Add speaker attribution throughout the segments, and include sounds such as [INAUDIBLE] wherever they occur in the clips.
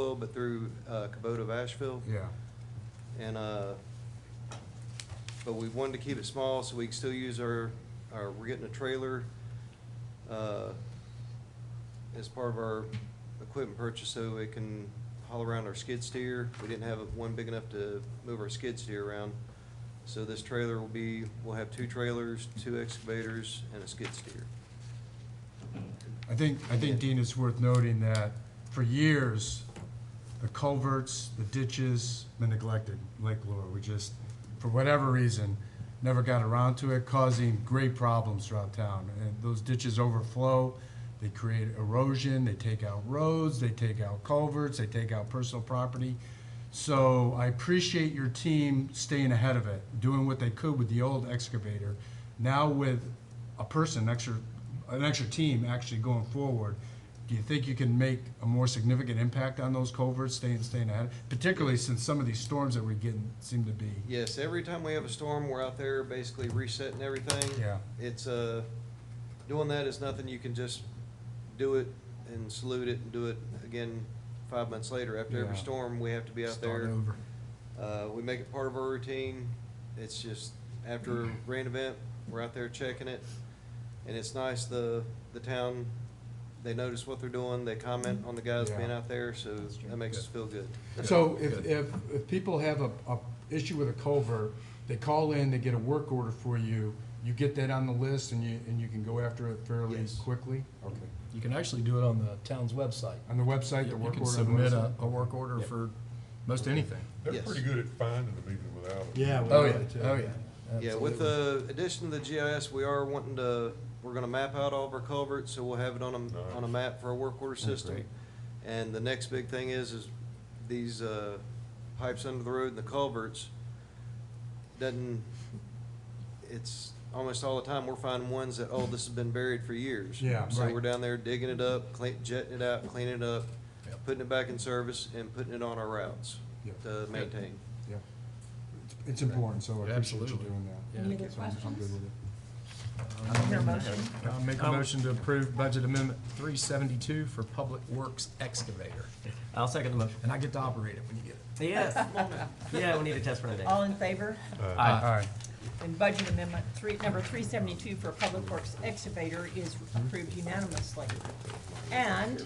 Speaker 1: Asheville, but through uh, Kubota of Asheville.
Speaker 2: Yeah,
Speaker 1: And, uh, but we wanted to keep it small so we can still use our, our, we're getting a trailer, uh, as part of our equipment purchase so it can haul around our skid steer. We didn't have one big enough to move our skid steer around. So this trailer will be, we'll have two trailers, two excavators, and a skid steer.
Speaker 2: I think, I think, Dean, it's worth noting that for years, the culverts, the ditches, been neglected, Lake Lure, we just, for whatever reason, never got around to it, causing great problems throughout town. And those ditches overflow, they create erosion, they take out roads, they take out culverts, they take out personal property. So I appreciate your team staying ahead of it, doing what they could with the old excavator. Now with a person, extra, an extra team actually going forward, do you think you can make a more significant impact on those culverts, staying, staying ahead? Particularly since some of these storms that we're getting seem to be,
Speaker 1: Yes, every time we have a storm, we're out there basically resetting everything.
Speaker 2: yeah,
Speaker 1: It's, uh, doing that is nothing, you can just do it and salute it and do it again five months later. After every
Speaker 2: Yeah.
Speaker 1: storm, we have to be out
Speaker 2: start
Speaker 1: there.
Speaker 2: over.
Speaker 1: Uh, we make it part of our routine. It's just after a
Speaker 2: [CLEARS THROAT]
Speaker 1: rain event, we're out there checking it. And it's nice, the, the town, they notice what they're doing, they comment on the guys
Speaker 2: Mm-hmm. Yeah.
Speaker 1: being out there, so that makes us feel good.
Speaker 2: So if, if, if people have a, a issue with a culvert, they call in, they get a work order for you, you get that on the list and you, and you can go after it fairly
Speaker 1: Yes.
Speaker 2: quickly? Okay.
Speaker 3: You can actually do it on the town's website.
Speaker 2: On the website, the
Speaker 3: You
Speaker 2: work
Speaker 3: can
Speaker 2: order? on the
Speaker 3: submit a,
Speaker 2: website?
Speaker 3: a work order
Speaker 2: Yeah.
Speaker 3: for most anything.
Speaker 4: They're
Speaker 1: Yes.
Speaker 4: pretty good at finding them even without it.
Speaker 5: Yeah. we
Speaker 3: Oh, yeah,
Speaker 5: wanted to.
Speaker 3: oh, yeah.
Speaker 1: Yeah, with uh, the addition of the GIS, we are wanting to, we're gonna map out all of our culverts, so we'll have it on a, on a map for our work order system.
Speaker 3: great.
Speaker 1: And the next big thing is, is these, uh, pipes under the road and the culverts, doesn't, it's almost all the time, we're finding ones that, oh, this has been buried for years.
Speaker 2: Yeah,
Speaker 1: So
Speaker 2: right.
Speaker 1: we're down there digging it up, clean, jetting it out, cleaning it up,
Speaker 3: Yep.
Speaker 1: putting it back in service, and putting it on our routes
Speaker 2: Yep.
Speaker 1: to maintain.
Speaker 2: Yeah. It's important, so I appreciate you
Speaker 3: Absolutely.
Speaker 2: doing
Speaker 3: Yeah.
Speaker 2: that.
Speaker 6: Any other
Speaker 2: So I'm- I'm good
Speaker 6: questions?
Speaker 2: with it.
Speaker 6: Hear a motion?
Speaker 3: I'll make a motion to approve budget amendment three seventy-two for Public Works excavator.
Speaker 7: I'll second the motion.
Speaker 3: And I get to operate it when you get it.
Speaker 7: Yes. Yeah, we need a test run today.
Speaker 6: All in favor?
Speaker 7: Aye.
Speaker 6: And budget amendment three, number three seventy-two for Public Works excavator is approved unanimously. And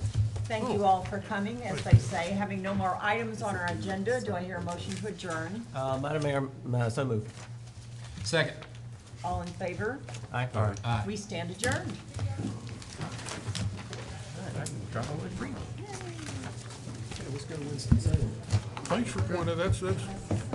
Speaker 6: thank you all for coming, as they say, having no more items on our agenda, do I hear a motion to adjourn?
Speaker 7: Uh, Madam Mayor, m- uh, so moved.
Speaker 3: Second.
Speaker 6: All in favor?
Speaker 7: Aye.
Speaker 3: Aye.
Speaker 6: We stand adjourned.
Speaker 7: Drop away free.
Speaker 3: Thanks for
Speaker 4: Well, that's, that's